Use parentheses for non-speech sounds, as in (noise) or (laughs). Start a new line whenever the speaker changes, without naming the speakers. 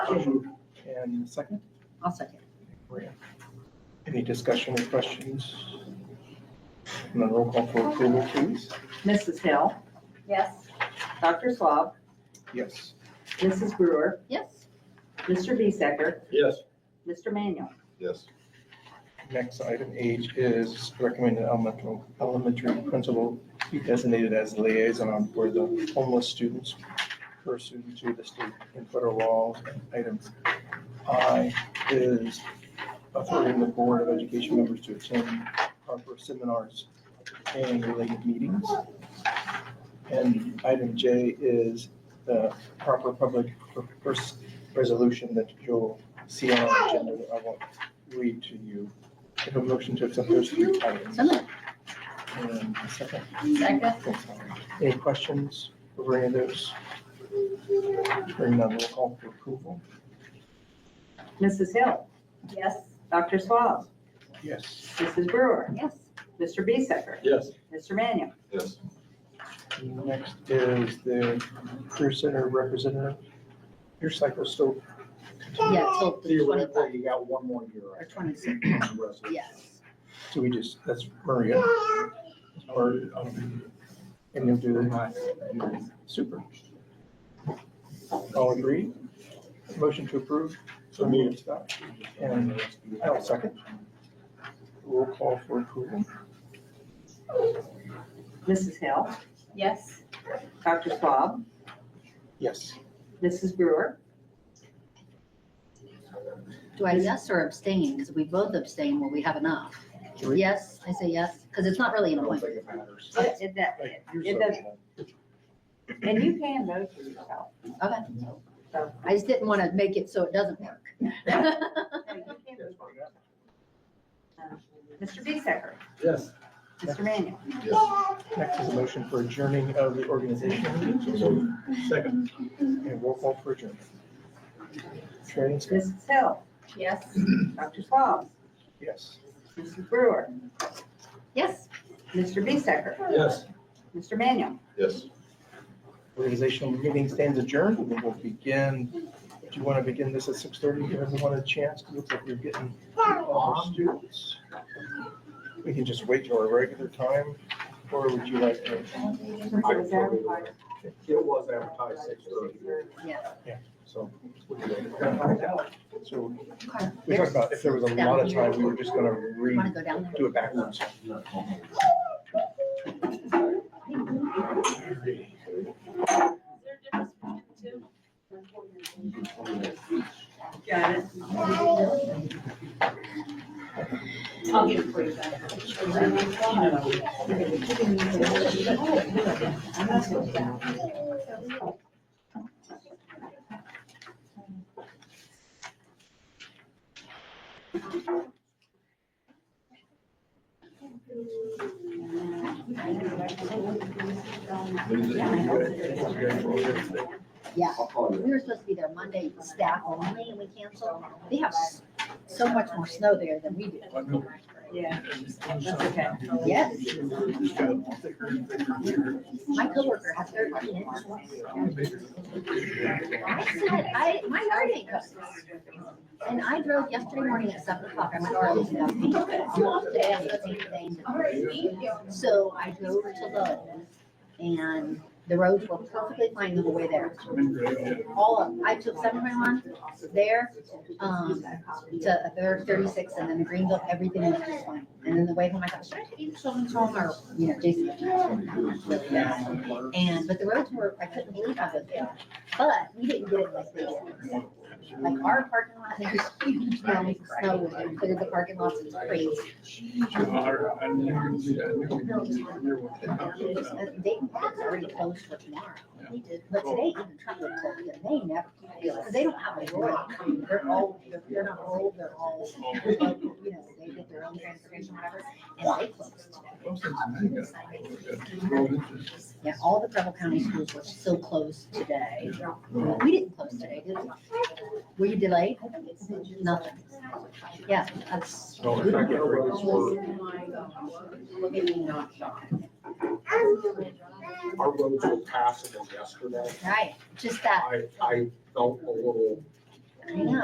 move. And second,
I'll second.
Maria. Any discussion or questions? And then roll call for approval, please.
Mrs. Hill,
Yes.
Dr. Swab,
Yes.
Mrs. Brewer,
Yes.
Mr. Bisecker,
Yes.
Mr. Manuel.
Yes.
Next item H is recommended elementary, elementary principal be designated as liaison for the homeless students pursuant to the state and federal laws. Items I is authority the Board of Education members to attend Harper seminars and related meetings. And item J is the proper public purpose resolution that you'll see on our agenda that I won't read to you. I have a motion to accept those three items.
So moved.
And a second.
Second.
Any questions over any of those? Hearing none, roll call for approval.
Mrs. Hill,
Yes.
Dr. Swab,
Yes.
Mrs. Brewer,
Yes.
Mr. Bisecker,
Yes.
Mr. Manuel.
Yes.
Next is the Career Center representative. Your cycle's still
Yeah, so the
Theoretically,
25
you got one more year,
or
right?
26,
on the rest of it.
yes.
So we just, that's Maria. Or, um, and you'll do that. Super. All agreed? Motion to approve. So moved. Scott. And I'll second. Roll call for approval.
Mrs. Hill,
Yes.
Dr. Swab,
Yes.
Mrs. Brewer,
Do I yes or abstain? Because we both abstain when we have enough.
Three.
Yes, I say yes, because it's not really
I
an
don't
appointment.
think it matters.
It- it- that-
Like, you're
Uh, it
so-
does- and you can vote for yourself.
Okay. I just didn't want to make it so it doesn't work.
No, you can vote for yourself. Uh, Mr. Bisecker,
Yes.
Mr. Manuel.
Yes.
Next is a motion for adjourning of the organization.
Second.
And roll call for adjournment. Training, Scott?
Mrs. Hill,
(laughs) Yes.
Dr. Swab,
Yes.
Mrs. Brewer,
Yes.
Mr. Bisecker,
Yes.
Mr. Manuel.
Yes.
Organizational meeting stands adjourned. We will begin, do you want to begin this at six thirty? Give everyone a chance. It looks like we're getting all the students. We can just wait till our regular time, or would you like to?
It was advertised six thirty,
Yeah.
so.
So
Okay.
we talked about if there was a lot of time, we were just gonna re,
Want to go down there?
do it backwards.
Got it. I'll get it for you guys.
Yeah. We were supposed to be there Monday, staff only, and we canceled. They have s- so much more snow there than we do.
Yeah, that's okay.
Yes. My coworker had thirteen inches. I said, I, my yard ain't custom. And I drove yesterday morning at seven o'clock. "Oh, I went early to go. So I drove to Lowe's and the roads were perfectly fine the whole way there. All of, I took seven by one there, um, to thirty-six, and then the Greenville, everything was just fine. And then the way home, I thought, should I take the children home or, you know, Jason? really fast. And, but the roads were, I couldn't believe how good they are. But we didn't get it like they did. Like our parking lot, there was (laughs) huge mountains of snow, and cleared the parking lots and streets. And They, that's already closed for tomorrow. But today, even Trump would close, and they never, because they don't have a road. They're all, they're- they're not old, they're all, you know, they get their own transportation, whatever, and they closed today. Yeah, all the Preble County schools were still closed today. We didn't close today, did we? Were you delayed? Nothing. Yeah, that's.
No, in fact, our roads were, our roads were passable yesterday.
Right, just that,
I, I felt a little